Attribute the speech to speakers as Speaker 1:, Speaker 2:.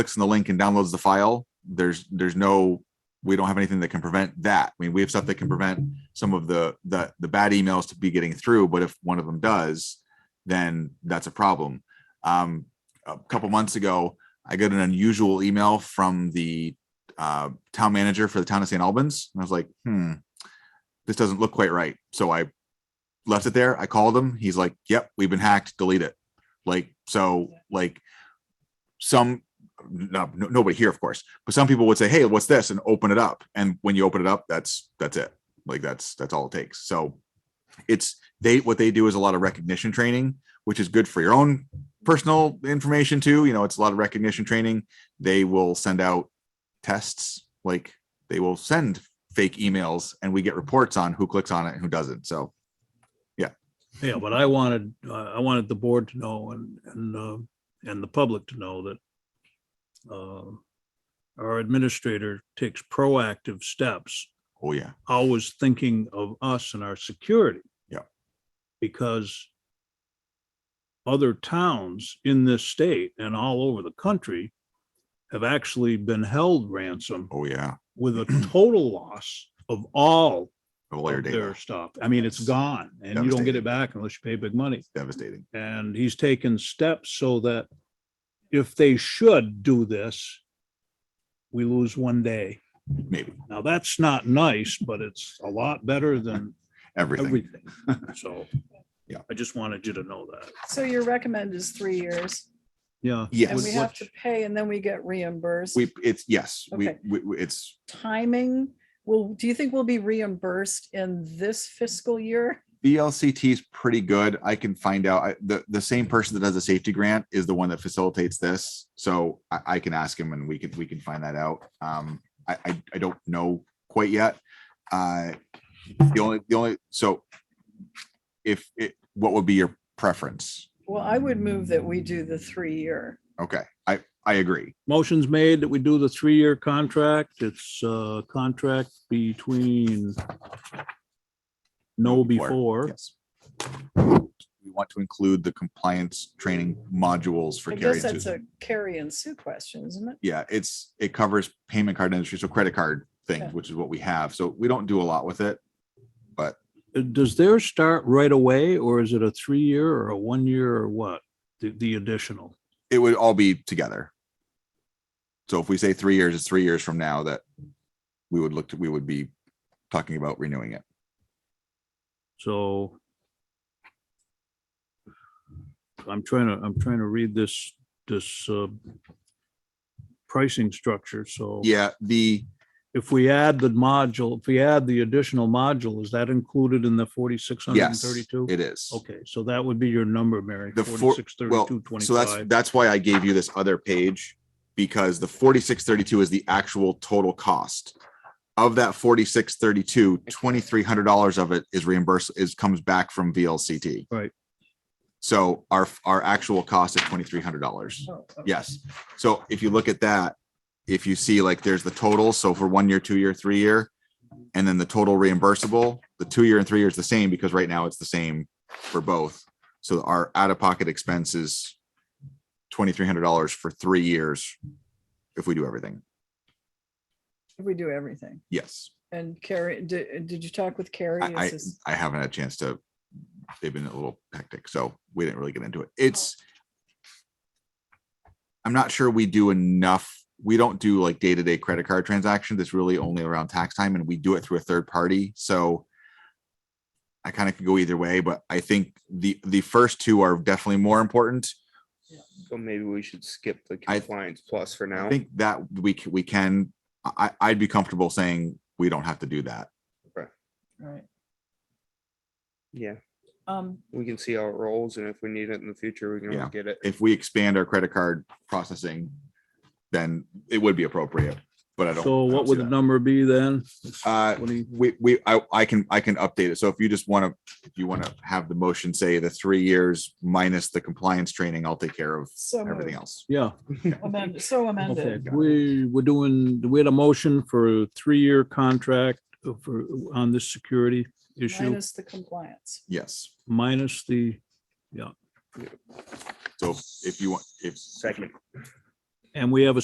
Speaker 1: clicks on the link and downloads the file, there's, there's no, we don't have anything that can prevent that. I mean, we have stuff that can prevent some of the, the, the bad emails to be getting through, but if one of them does, then that's a problem. Um, a couple months ago, I got an unusual email from the uh, town manager for the town of St. Albans. And I was like, hmm, this doesn't look quite right. So I left it there. I called him. He's like, yep, we've been hacked. Delete it. Like, so like some, no, no- nobody here, of course, but some people would say, hey, what's this? And open it up. And when you open it up, that's, that's it. Like that's, that's all it takes. So it's, they, what they do is a lot of recognition training, which is good for your own personal information too. You know, it's a lot of recognition training. They will send out tests like they will send fake emails and we get reports on who clicks on it and who doesn't so
Speaker 2: Yeah, but I wanted, uh, I wanted the board to know and, and, uh, and the public to know that uh, our administrator takes proactive steps,
Speaker 1: oh yeah
Speaker 2: always thinking of us and our security.
Speaker 1: Yeah.
Speaker 2: Because other towns in this state and all over the country have actually been held ransom
Speaker 1: oh yeah
Speaker 2: with a total loss of all
Speaker 1: Of all your
Speaker 2: of
Speaker 1: data
Speaker 2: their stuff. I mean, it's
Speaker 1: Yes.
Speaker 2: gone and you don't get
Speaker 1: Devastating.
Speaker 2: it back unless you pay big money.
Speaker 1: devastating
Speaker 2: And he's taken steps so that if they should do this, we lose one day.
Speaker 1: maybe
Speaker 2: Now, that's not nice, but it's a lot better than
Speaker 1: everything
Speaker 2: everything. So
Speaker 1: Yeah.
Speaker 2: I just wanted you to know that.
Speaker 3: So your recommend is three years
Speaker 2: Yeah.
Speaker 3: and we
Speaker 1: yes
Speaker 3: have to pay and then we get reimbursed.
Speaker 1: we it's yes we,
Speaker 3: Okay.
Speaker 1: we we- it's
Speaker 3: Timing, well, do you think we'll be reimbursed in this fiscal year?
Speaker 1: VLCT is pretty good. I can find out. I, the the same person that does the safety grant is the one that facilitates this, so I, I can ask him and we can we can find that out. Um, I I, I don't know quite yet. Uh, the only the only so if it what would be your preference?
Speaker 3: Well, I would move that we do the three-year.
Speaker 1: Okay, I I agree.
Speaker 2: Motion's made that we do the three-year contract. It's a contract between no before.
Speaker 1: Yes. We want to include the compliance training modules for
Speaker 3: I
Speaker 1: Carrie and
Speaker 3: guess that's
Speaker 1: Susan.
Speaker 3: a Carrie and Sue question, isn't it?
Speaker 1: yeah, it's, it covers payment card industry, so credit card things,
Speaker 3: Okay.
Speaker 1: which is what we have. So we don't do a lot with it.
Speaker 2: Uh, Does theirs start right away or is it a three-year or a one-year or what? The, the additional?
Speaker 1: It would all be together. So if we say three years, it's three years from now that we would look to, we would be talking about renewing it.
Speaker 2: So I'm trying to, I'm trying to read this, this uh, pricing structure. So
Speaker 1: Yeah, the,
Speaker 2: if we add the module, if we add the additional module, is that included in the forty-six hundred and
Speaker 1: yes,
Speaker 2: thirty-two?
Speaker 1: it is.
Speaker 2: Okay, so that would be your number, Mary,
Speaker 1: The four-
Speaker 2: forty-six,
Speaker 1: well,
Speaker 2: thirty-two,
Speaker 1: So that's,
Speaker 2: twenty-five.
Speaker 1: that's why I gave you this other page because the forty-six thirty-two is the actual total cost. Of that forty-six thirty-two, twenty-three hundred dollars of it is reimbursed, is, comes back from VLCT.
Speaker 2: Right.
Speaker 1: So our, our actual cost is twenty-three hundred dollars.
Speaker 3: Oh, okay.
Speaker 1: Yes. So if you look at that, if you see like there's the total, so for one year, two year, three year, and then the total reimbursable, the two year and three year is the same because right now it's the same for both. So our out of pocket expense is twenty-three hundred dollars for three years if we do everything.
Speaker 3: If We do everything.
Speaker 1: Yes,
Speaker 3: And Carrie, did, did you talk with Carrie?
Speaker 1: I-
Speaker 3: Is this-
Speaker 1: I haven't had a chance to, they've been a little hectic, so we didn't really get into it. It's I'm not sure we do enough. We don't do like day-to-day credit card transactions. It's really only around tax time and we do it through a third party. So I kind of could go either way, but I think the, the first two are definitely more important.
Speaker 4: So maybe we should skip the
Speaker 1: I-
Speaker 4: compliance plus for
Speaker 1: I
Speaker 4: now.
Speaker 1: think that we, c- we can, I, I- I'd be comfortable saying we don't have to do that.
Speaker 3: Right.
Speaker 4: Yeah,
Speaker 3: Um,
Speaker 4: we can see how it rolls and if we need it in the future, we can
Speaker 1: Yeah.
Speaker 4: always get it.
Speaker 1: If we expand our credit card processing, then it would be appropriate, but I don't.
Speaker 2: So
Speaker 1: I don't
Speaker 2: what
Speaker 1: see
Speaker 2: would the
Speaker 1: that.
Speaker 2: number be then?
Speaker 1: Uh,
Speaker 2: What do you-
Speaker 1: we, we, I, I can, I can update it. So if you just want to, if you want to have the motion, say the three years minus the compliance training, I'll take care of
Speaker 3: so
Speaker 1: everything
Speaker 3: moved.
Speaker 1: else.
Speaker 2: Yeah,
Speaker 3: amended, so
Speaker 2: okay.
Speaker 3: amended.
Speaker 2: We, we're doing, we had a motion for a three-year contract for, on this security issue
Speaker 3: Minus the compliance.
Speaker 1: Yes.
Speaker 2: minus the,
Speaker 1: So if you want, if
Speaker 4: Second.
Speaker 2: and we have a